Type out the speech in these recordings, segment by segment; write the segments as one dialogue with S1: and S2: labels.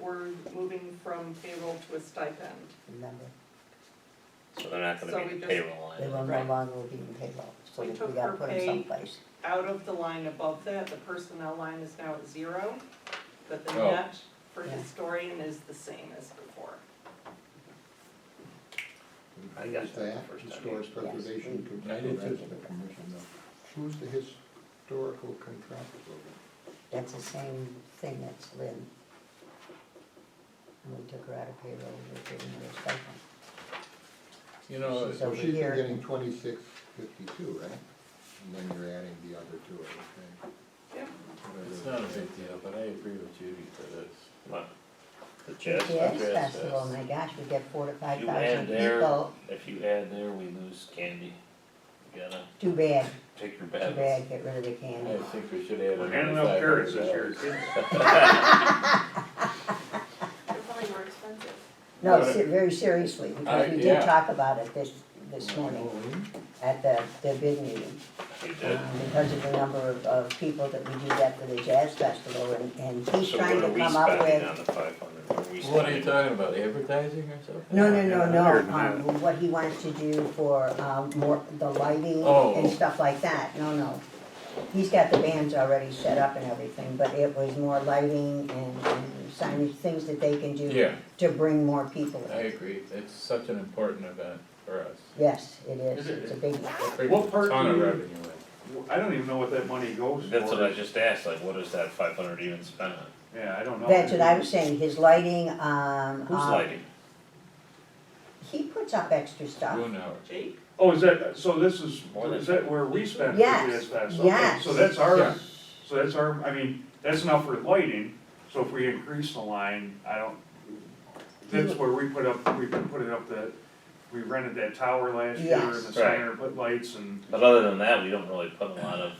S1: we're moving from payroll to a stipend.
S2: remember,
S3: so they're not
S1: So
S3: gonna be
S1: we
S3: in
S1: just-
S3: payroll
S2: they
S3: line.
S2: will no
S1: Right.
S2: longer be in payroll, so
S1: We
S2: we
S1: took
S2: gotta
S1: her
S2: put them
S1: pay-
S2: someplace.
S1: Out of the line above that, the personnel line is now at zero, but the
S3: Oh.
S1: net for
S2: Yeah.
S1: historian is the same as before.
S3: I got that
S4: That,
S3: the first time.
S4: historic preservation
S5: I did
S4: contractual
S5: too.
S4: estimate commission, though. Who's the historical contractual?
S2: That's the same thing that's Lynn. And we took her out of payroll, we were giving her a stipend.
S5: You know,
S2: She's
S4: So
S2: over
S4: she's been
S2: here.
S4: getting twenty-six fifty-two, right? And then you're adding the other two, okay?
S1: Yeah.
S5: it's not a big deal, but I agree with Judy for this.
S3: What? The
S2: The
S3: jazz
S2: Jazz
S5: Jazz
S2: Festival, oh
S5: Fest.
S2: my gosh, we get four to five
S3: You add
S2: thousand
S3: there-
S2: people,
S3: If you add there, we lose candy. You gotta
S2: too bad,
S3: take your
S2: too
S3: bad.
S2: bad, get rid of the
S5: I
S2: candy.
S5: think we should add
S6: We're
S5: another
S6: handing out
S5: five
S6: carrots
S5: hundred
S6: this year,
S5: dollars.
S6: kids.
S7: They're probably more expensive.
S2: No,
S5: But-
S2: se- very seriously, because
S5: I-
S2: we
S5: yeah.
S2: did talk about it this, this morning at the, the bid meeting.
S3: You did.
S2: um, because of the number of, of people that we do that for the jazz festival, and, and he's
S3: So what
S2: trying
S3: are
S2: to
S3: we
S2: come up
S3: spending
S2: with.
S3: on the five hundred? What are we
S5: What are you
S3: spending?
S5: talking about, advertising or something?
S2: No, no, no,
S6: Hundred
S2: no,
S6: and
S2: um, what he wants to do for, um, more, the lighting
S5: Oh.
S2: and stuff like that, no, no. He's got the bands already set up and everything, but it was more lighting and and signage, things that they can do
S5: Yeah,
S2: to bring more people
S5: I
S2: in.
S5: agree, it's such an important event for us.
S2: Yes, it is, it's a big,
S5: Brings
S6: What
S5: a
S6: part
S5: ton of
S6: do you-
S5: revenue in.
S6: I don't even know what that money goes for.
S3: That's what I just asked, like, what is that five hundred even spent on?
S2: Uh,
S6: Yeah, I don't know.
S2: that's what I was saying, his lighting, um.
S3: Who's
S2: uh,
S3: lighting?
S2: He puts up extra stuff.
S5: Moon hour.
S1: Jake?
S6: Oh, is that, so this is,
S3: More than-
S6: is that where we spend for
S2: Yes,
S6: this fest?
S2: yes.
S6: So that's our,
S5: Yeah.
S6: so that's our, I mean, that's enough for lighting, so if we increase the line, I don't, that's where we put up, we put it up the, we rented that tower last year in the
S2: Yes.
S6: center, put lights and.
S3: But other than that, we don't really put a lot of.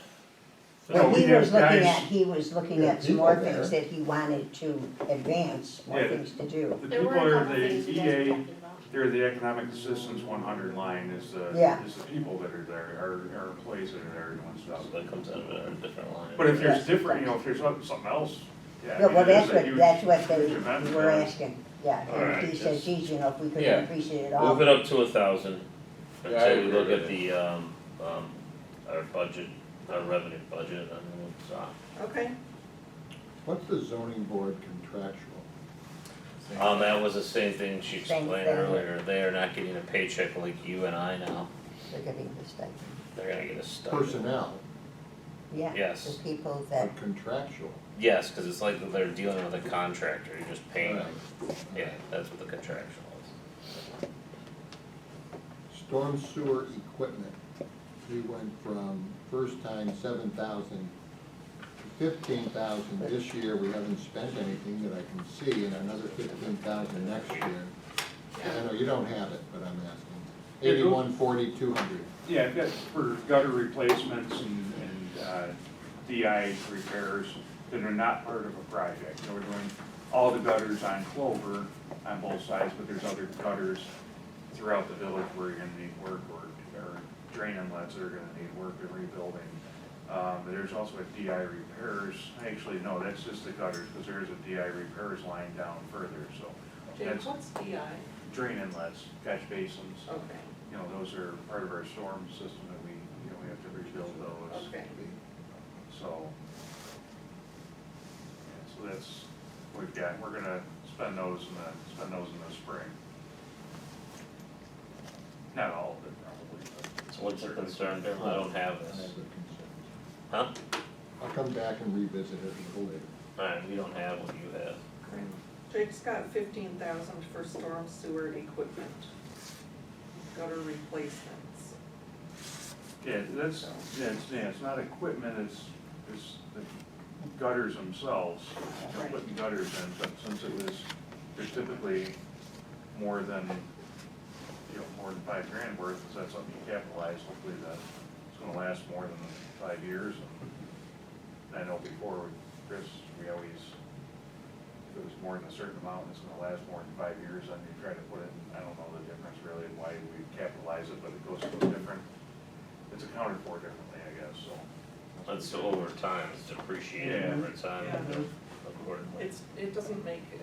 S6: No,
S2: What
S6: we
S2: he
S6: have
S2: was looking
S6: guys-
S2: at, he was looking
S4: Yeah,
S2: at some more
S4: people there.
S2: things that he wanted to advance, more
S6: Yeah.
S2: things to do.
S6: The
S7: There
S6: people
S7: were a
S6: are
S7: couple things
S6: the E
S7: you guys were
S6: EA,
S7: talking about.
S6: they're the economic assistance one hundred line is the,
S2: Yeah.
S6: is the people that are there, our, our employees that are there doing stuff.
S3: So that comes out of a different line.
S6: But if there's
S2: Yes.
S6: different, you know, if there's something something else, yeah. I
S2: Yeah,
S6: mean,
S2: well,
S6: it is
S2: that's
S6: a
S2: what,
S6: huge-
S2: that's what
S6: huge event
S2: they
S6: for
S2: were
S6: us.
S2: asking, yeah,
S3: Alright,
S2: and he says,
S3: that's-
S2: geez, you know, if we could
S5: Yeah.
S2: increase it at all.
S3: Move it up to a thousand,
S5: Yeah, I
S3: until we
S5: agree
S3: look
S5: with
S3: at the, um, um, our budget, our revenue budget, and then it's, uh,
S1: Okay,
S4: What's the zoning board contractual?
S3: um, that was the same thing she
S2: Same
S3: explained
S2: thing.
S3: earlier, they are not getting a paycheck like you and I now,
S2: They're getting the stipend,
S3: they're gonna get a stipend.
S4: Personnel,
S2: yeah,
S3: Yes.
S2: the people that,
S4: but contractual.
S3: Yes, cause it's like they're dealing with a contractor, you're just paying them, yeah,
S4: Alright.
S3: that's what the contractual is.
S4: Storm sewer equipment, we went from first time seven thousand to fifteen thousand this year, we haven't spent anything that I can see, and another fifteen thousand next year. I know you don't have it, but I'm asking,
S6: Yeah, go-
S4: eighty-one forty, two hundred,
S6: Yeah, I've got for gutter replacements and, and, uh, DI repairs that are not part of a project. So we're doing all the gutters on Clover on both sides, but there's other gutters throughout the village where you're gonna need work or, or drain inlets that are gonna need work and rebuilding. Um, but there's also a DI repairs, actually, no, that's just the gutters, cause there is a DI repairs line down further, so.
S1: Jake,
S6: that's
S1: what's DI?
S6: Drain inlets, catch basins
S1: Okay,
S6: you know, those are part of our storm system that we, you know, we have to rebuild those,
S1: okay.
S6: so. yeah, So that's, what we've got, we're gonna spend those in the, spend those in the spring. Not all of it probably, but.
S3: So what's the concern, Darryl? I don't have
S4: I have the
S3: this,
S4: concerns.
S3: huh?
S4: I'll come back and revisit it a little later.
S3: Alright, we don't have what you have.
S1: Great. Jake's got fifteen thousand for storm sewer equipment, gutter replacements.
S6: Yeah, that's, yeah, it's, yeah, it's not equipment, it's, it's the gutters themselves, you know, putting gutters in, but since it was, there's typically more than, you know, more than five grand worth, is that something you capitalize, hopefully that, it's gonna last more than five years, and I know before, with Chris, we always, if it was more than a certain amount, it's gonna last more than five years, and you try to put it, I don't know the difference really, why we capitalize it, but it goes to a different it's accounted for differently, I guess, so.
S3: That's over time, it's depreciated
S6: Yeah.
S3: over time,
S1: Yeah.
S3: accordingly.
S1: It's, it doesn't make